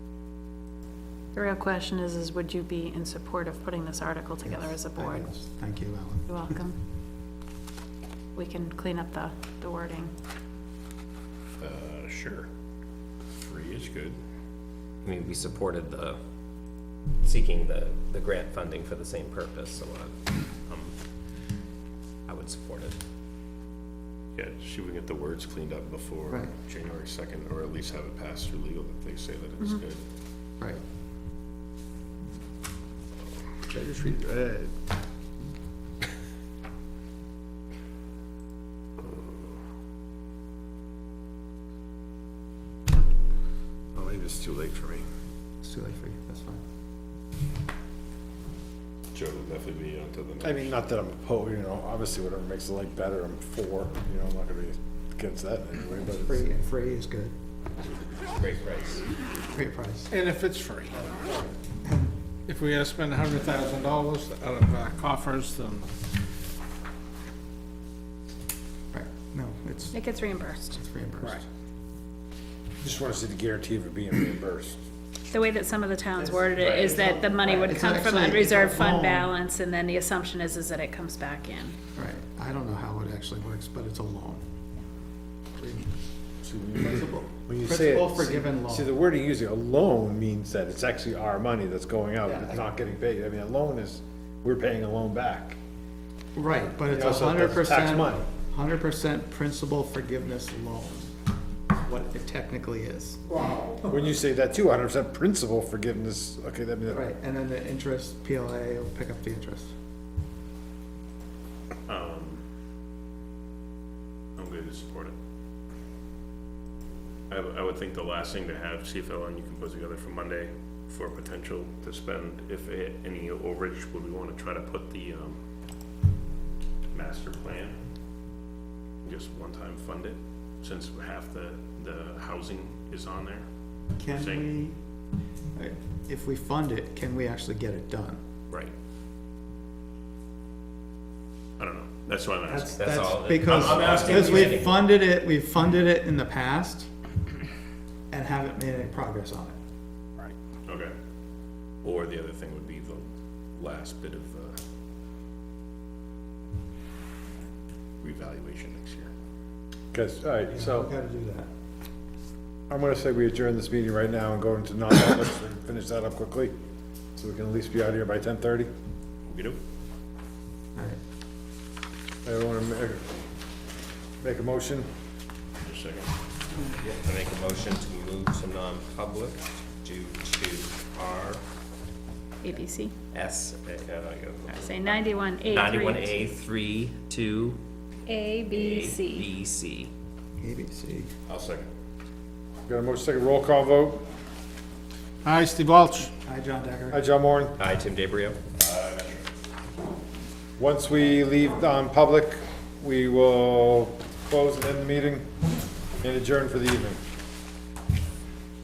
The real question is, is would you be in support of putting this article together as Yes, a I board? guess. Thank you, Ellen. You're welcome. We can clean up the, the wording. Uh, sure. Three is good. I mean, we supported the, seeking the, the grant funding for the same purpose, so uh, um, I would support it. Yeah, see, if we can get the words cleaned up before Right. January second, or at least have it passed through legal that they say that it's good. Right. Should I just read, uh, Oh, maybe it's too late for me. It's too late for you, that's fine. Joe will definitely be on to the next. I mean, not that I'm opposed, you know, obviously whatever makes the lake better, I'm for, you know, I'm not gonna be against that anyway, but it's. Free, free is good. Great price. Great price. And if it's free. If we gotta spend a hundred thousand dollars out of our coffers, then Right, no, it's It gets reimbursed. it's reimbursed. Just wanna see the guarantee of it being reimbursed. The way that some of the towns worded it is that the money would It's come from actually- unreserved it's a fund loan. balance, and then the assumption is, is that it comes back in. Right, I don't know how it actually works, but it's a loan. See, when you- Principal. When you say. it- Principal forgiven See, the loan. word you use, a loan means that it's actually our money that's going out, Yeah, I- it's not getting paid. I mean, a loan is, we're paying a loan back. Right, but it's Yeah, a so hundred that's tax percent, money. hundred percent principal forgiveness loan. What it technically is. When you say that too, hundred percent principal forgiveness, okay, that means, Right, and then the interest, PLA will pick up the interest. I'm going to support it. I, w- I would think the last thing to have, see if Ellen, you can put together for Monday for potential to spend, if a- any overage, would we want to try to put the, um, master plan? Just one-time fund it, since half the, the housing is on there? Can Saying- we, uh, if we fund it, can we actually get it done? Right. I don't know, that's why I'm asking. That's all. Because, I'm- I'm asking because we Andy. funded it, we funded it in the past and haven't made any progress on it. Okay. Or the other thing would be the last bit of, uh, revaluation next year. because, all right, so. We've got to do that. I'm gonna say we adjourn this meeting right now and go into non-public, so we can finish that up quickly, so we can at least be out of here by ten thirty. We do? All right. Everyone make, make a motion, Just a second. I make a motion to move to non-public due to our ABC, S, uh, I say ninety-one A three. ninety-one A three, two. A, B, C. B, C. ABC. I'll second. got a motion, second roll call vote, hi, Steve Walsh. Hi, John Decker. hi, John Moore. Hi, Tim DeBrio. Once we leave um, on public, we will close and end the meeting and adjourn for the evening.